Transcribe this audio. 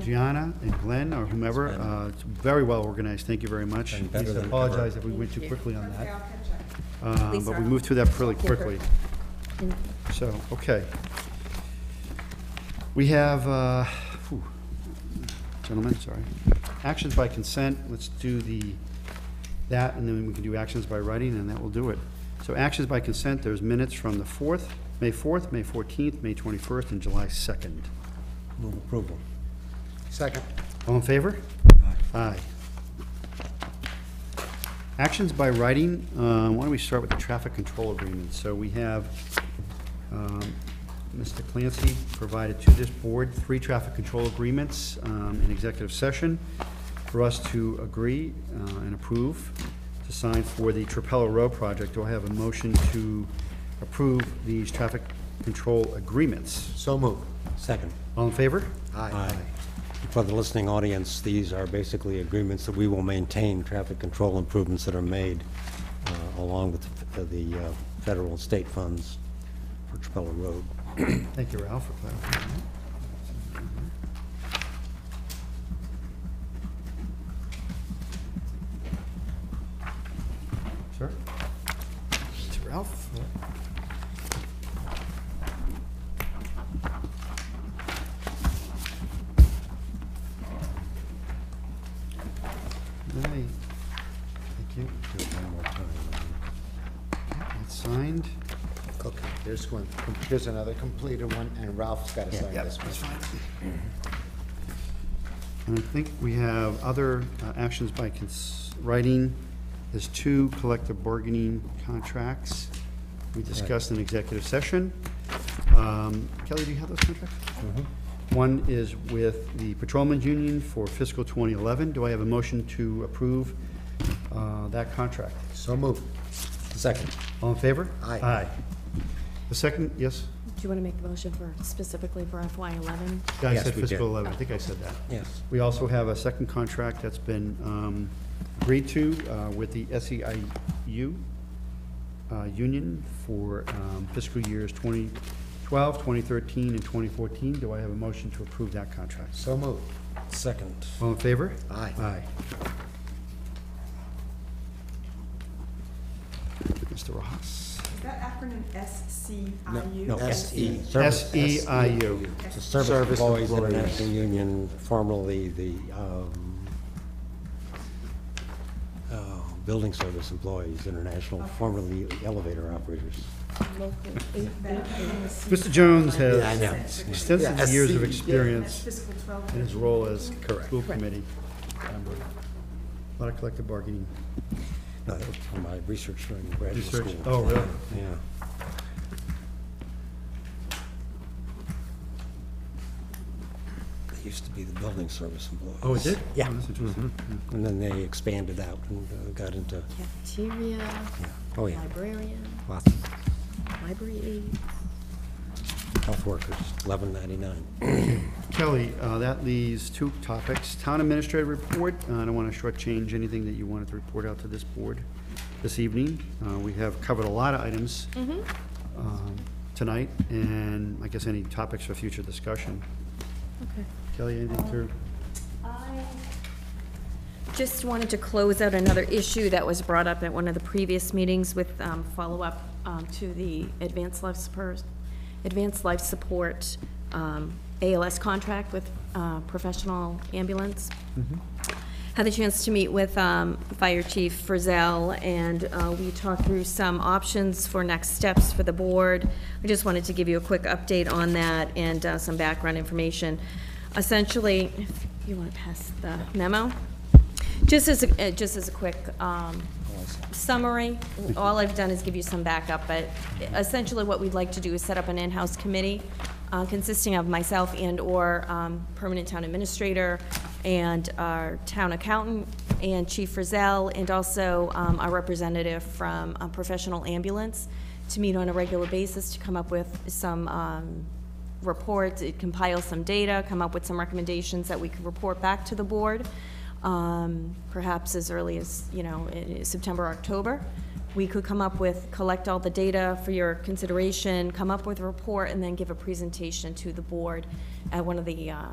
Gianna and Glenn or whomever. Uh, It's very well organized, thank you very much. And better Lisa, than Apologize if we went too quickly on Okay, I'll that, catch up. Um, but we moved through that pretty quickly. So, okay. We have, uh, whew, gentlemen, sorry, actions by consent, let's do the, that, and then we can do actions by writing, and that will do it. So actions by consent, there's minutes from the 4th, May 4th, May 14th, May 21st, and July 2nd. Move approval. Second. All in favor? Aye. Actions by writing, uh, why don't we start with the traffic control agreement? So we have, um, Mr. Clancy provided to this board three traffic control agreements um, in executive session for us to agree uh, and approve to sign for the Trapello Row project. Do I have a motion to approve these traffic control agreements? So moved. Second. All in favor? Aye. For the listening audience, these are basically agreements that we will maintain traffic control improvements that are made uh, along with the- the uh, federal and state funds for Trapella Road. Thank you, Ralph, for clarifying that. Mm-hmm. Sir? It's Ralph? Aye. Thank you. Do it one more time. That's signed. Okay, there's one, there's another completed one, and Ralph's got to sign this one. And I think we have other uh, actions by cons- writing. There's two collective bargaining contracts we discussed in executive session. Um, Kelly, do you have those contracts? Mm-hmm. One is with the Patrolmen's Union for fiscal 2011. Do I have a motion to approve uh, that contract? So moved. Second. All in favor? Aye. Aye. The second, yes? Do you want to make the motion for, specifically for FY eleven? Yeah, I Yes, said we did. fiscal 11. I think I said that. Yes. We also have a second contract that's been um, agreed to uh, with the SEIU uh, Union for um, fiscal years 2012, 2013, and 2014. Do I have a motion to approve that contract? So moved. Second. All in favor? Aye. Aye. Mr. Rojas? Is that acronym SCIU? No, E. SE. Service- E SEIU. It's a Service Service Employees Employees. International Union, formerly the um, uh, Building Service Employees International, formerly Elevator Operators. E. That acronym is C- Mr. Jones I has know. E Yeah, extensive years of SEIU. experience. That's fiscal 12. in his role as Correct. school committee member. A lot of collective bargaining. No, that was from my research during graduate Research. school. Oh, really? Yeah. They used to be the building service employees. Oh, it did? Yeah. Oh, That's interesting. And then they expanded out and uh, got into, Cafeteria, yeah, oh, yeah, librarian, lots of library aide. health workers, eleven ninety-nine. Kelly, uh, that leaves two topics. Town administrator report, Uh, I don't want to shortchange anything that you wanted to report out to this board this evening. Uh, We have covered a lot of items um, tonight, and I guess any topics for future discussion. Okay. Kelly, anything to, I just wanted to close out another issue that was brought up at one of the previous meetings with um, follow-up um, to the advanced life support, advanced life support um, ALS contract with uh, professional ambulance. Had the chance to meet with um, Fire Chief Frizzell, and uh, we talked through some options for next steps for the board. I just wanted to give you a quick update on that and uh, some background information. Essentially, if you want to pass the memo, just as, a- uh, just as a quick um, summary, all I've done is give you some backup, but essentially what we'd like to do is set up an in-house committee uh, consisting of myself and/or um, permanent town administrator and our town accountant and Chief Frizzell, and also um, our representative from uh, Professional Ambulance to meet on a regular basis to come up with some um, reports, it compiles some data, come up with some recommendations that we could report back to the board, um, perhaps as early as, you know, i- i- September, October. We could come up with, collect all the data for your consideration, come up with a report, and then give a presentation to the board at one of the uh,